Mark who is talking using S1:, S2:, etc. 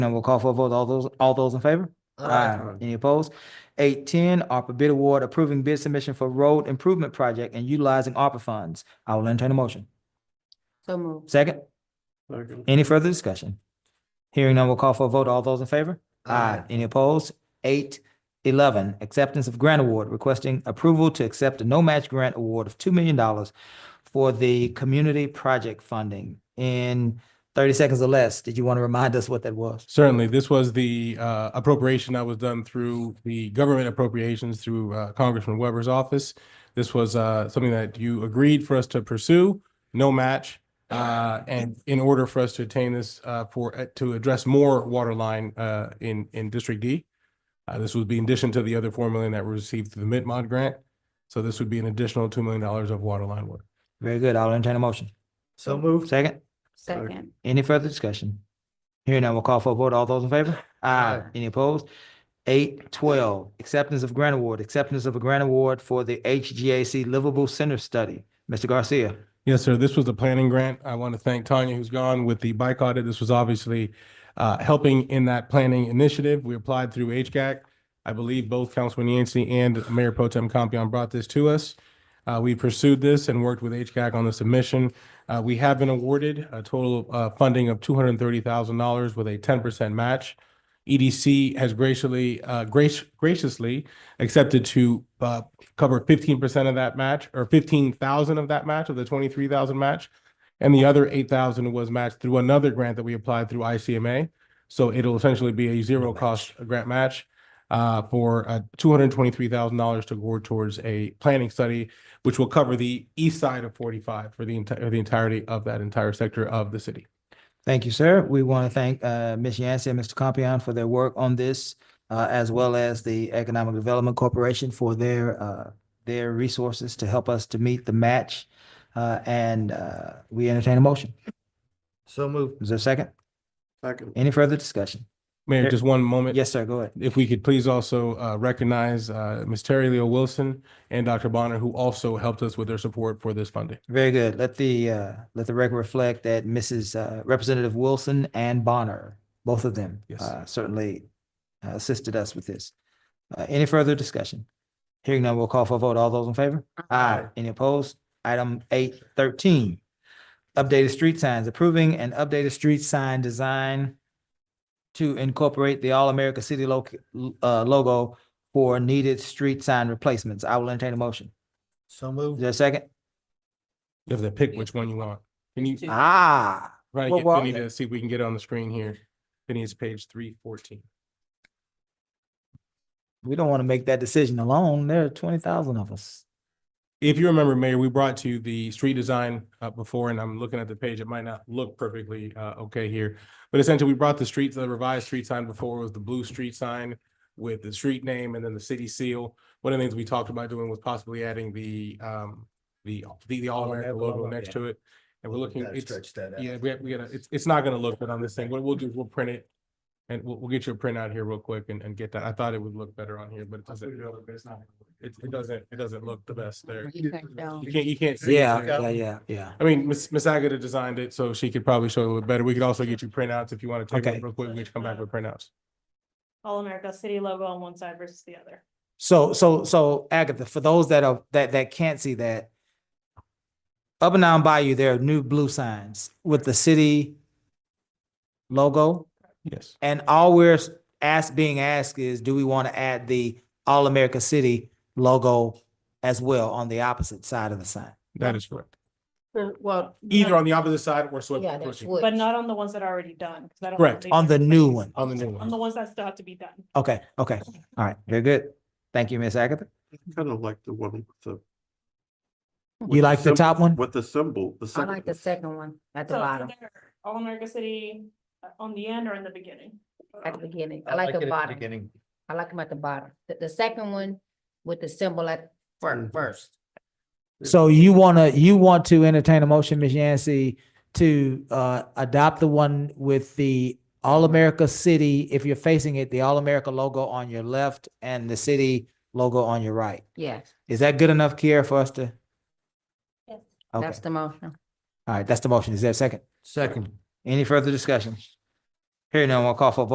S1: And we'll call for a vote. All those, all those in favor? Aye. Any opposed? Eight ten, ARPA bid award approving bid submission for road improvement project and utilizing ARPA funds. I will entertain a motion.
S2: So moved.
S1: Second,
S3: Second.
S1: any further discussion? Hearing none, we'll call for a vote. All those in favor? Aye. Any opposed? Eight eleven, acceptance of grant award requesting approval to accept a no-match grant award of two million dollars for the community project funding. In thirty seconds or less, did you want to remind us what that was?
S4: Certainly, this was the uh, appropriation that was done through the government appropriations through uh, Congressman Weber's office. This was uh, something that you agreed for us to pursue, no match. uh, And in order for us to attain this uh, for, uh, to address more water line uh, in, in District D. Uh, This would be in addition to the other four million that were received through the Mid-Mod grant. So this would be an additional two million dollars of water line work.
S1: Very good. I'll entertain a motion.
S3: So moved.
S1: Second?
S2: Second.
S1: Any further discussion? Hearing none, we'll call for a vote. All those in favor? Aye. Any opposed? Eight twelve, acceptance of grant award, acceptance of a grant award for the HGAC Livable Center Study. Mr. Garcia,
S4: Yes, sir. This was the planning grant. I want to thank Tanya, who's gone with the bike audit. This was obviously uh, helping in that planning initiative. We applied through HGAC. I believe both Councilman Yancey and Mayor Pro Tem Compion brought this to us. Uh, We pursued this and worked with HGAC on the submission. Uh, We have been awarded a total uh, funding of two hundred and thirty thousand dollars with a ten percent match. EDC has graciously, uh, grac- graciously accepted to uh, cover fifteen percent of that match or fifteen thousand of that match of the twenty-three thousand match. And the other eight thousand was matched through another grant that we applied through ICMA. So it'll essentially be a zero cost grant match uh, for uh, two hundred and twenty-three thousand dollars to go towards a planning study, which will cover the east side of forty-five for the entire, the entirety of that entire sector of the city.
S1: thank you, sir. We want to thank uh Ms. Yancey and Mr. Compion for their work on this, uh as well as the Economic Development Corporation for their uh their resources to help us to meet the match. Uh and uh we entertain a motion.
S3: So moved.
S1: Is there a second?
S3: Second.
S1: Any further discussion?
S4: Mayor, just one moment.
S1: Yes, sir, go ahead.
S4: If we could please also uh, recognize uh, Ms. Terry Leo Wilson and Dr. Bonner, who also helped us with their support for this funding.
S1: Very good. Let the, uh, let the record reflect that Mrs. uh, Representative Wilson and Bonner, both of them,
S4: Yes.
S1: uh, certainly uh, assisted us with this. Uh, any further discussion? Hearing none, we'll call for a vote. All those in favor? Aye. Any opposed? Item eight thirteen. Updated street signs, approving an updated street sign design to incorporate the All-America City lo- uh, logo for needed street sign replacements. I will entertain a motion.
S3: So
S1: Is
S3: moved.
S1: there a second?
S4: You have to pick which one you want. Can you,
S1: Ah.
S4: try to
S1: Well,
S4: get
S1: well-
S4: Vinny to see if we can get it on the screen here. Vinny is page three fourteen.
S1: We don't want to make that decision alone. There are twenty thousand of us.
S4: If you remember, Mayor, we brought to you the street design uh, before, and I'm looking at the page, it might not look perfectly uh, okay here. But essentially, we brought the streets, the revised street sign before was the blue street sign with the street name and then the city seal. One of the things we talked about doing was possibly adding the um, the, the, the All-American
S3: All-America
S4: logo
S3: logo,
S4: next
S3: yeah.
S4: to it. And we're looking,
S3: Gotta
S4: it's,
S3: Stretch that out.
S4: yeah, we, have- we gotta, it's, it's not gonna look good on this thing. What we'll do is we'll print it. And we'll, we'll get your print out here real quick and, and get that. I thought it would look better on here, but it doesn't. It, it doesn't, it doesn't look the best there.
S2: You can't tell.
S4: You can't, you can't see. it
S1: Yeah,
S4: there.
S1: yeah, yeah, yeah.
S4: I mean, Miss, Miss Agata designed it, so she could probably show it a little better. We could also get you printouts if you want to take
S1: Okay.
S4: one real quick. We can come back with printouts.
S5: All America City logo on one side versus the other.
S1: So, so, so Agatha, for those that are, that, that can't see that, up and down Bayou, there are new blue signs with the city logo.
S4: Yes.
S1: And all we're asked, being asked is, do we want to add the All America City logo as well on the opposite side of the sign?
S4: That is correct.
S2: Well.
S4: Either on the opposite side or swipe.
S2: Yeah, that's
S4: pushing.
S2: what.
S5: But not on the ones that are already done. 'cause I don't
S4: Correct.
S5: believe
S1: On the
S5: they're
S1: new
S5: replaced.
S1: one.
S4: On the new
S5: On the
S4: one.
S5: ones that still have to be done.
S1: Okay, okay. All right, very good. Thank you, Miss Agatha.
S6: Kind of like the one with the. with
S1: You like the
S6: sym-
S1: top one?
S6: With the symbol, the
S2: I
S6: second.
S2: like the second one at the
S5: So it's
S2: bottom,
S5: either All America City uh, on the end or in the beginning.
S2: at the beginning. I like the bottom. I like them at the bottom. The, the second one with the symbol at fir-
S4: Mm.
S6: Mhm.
S2: first.
S1: So you wanna, you want to entertain a motion, Ms. Yancey, to uh adopt the one with the All-America City, if you're facing it, the All-America logo on your left and the city logo on your right.
S2: Yes,
S1: Is that good enough, Kiera, for us to?
S5: Yes.
S1: Okay,
S2: that's the motion.
S1: all right, that's the motion. Is there a second?
S3: Second.
S1: Any further discussion? Hearing none, we'll call for a vote.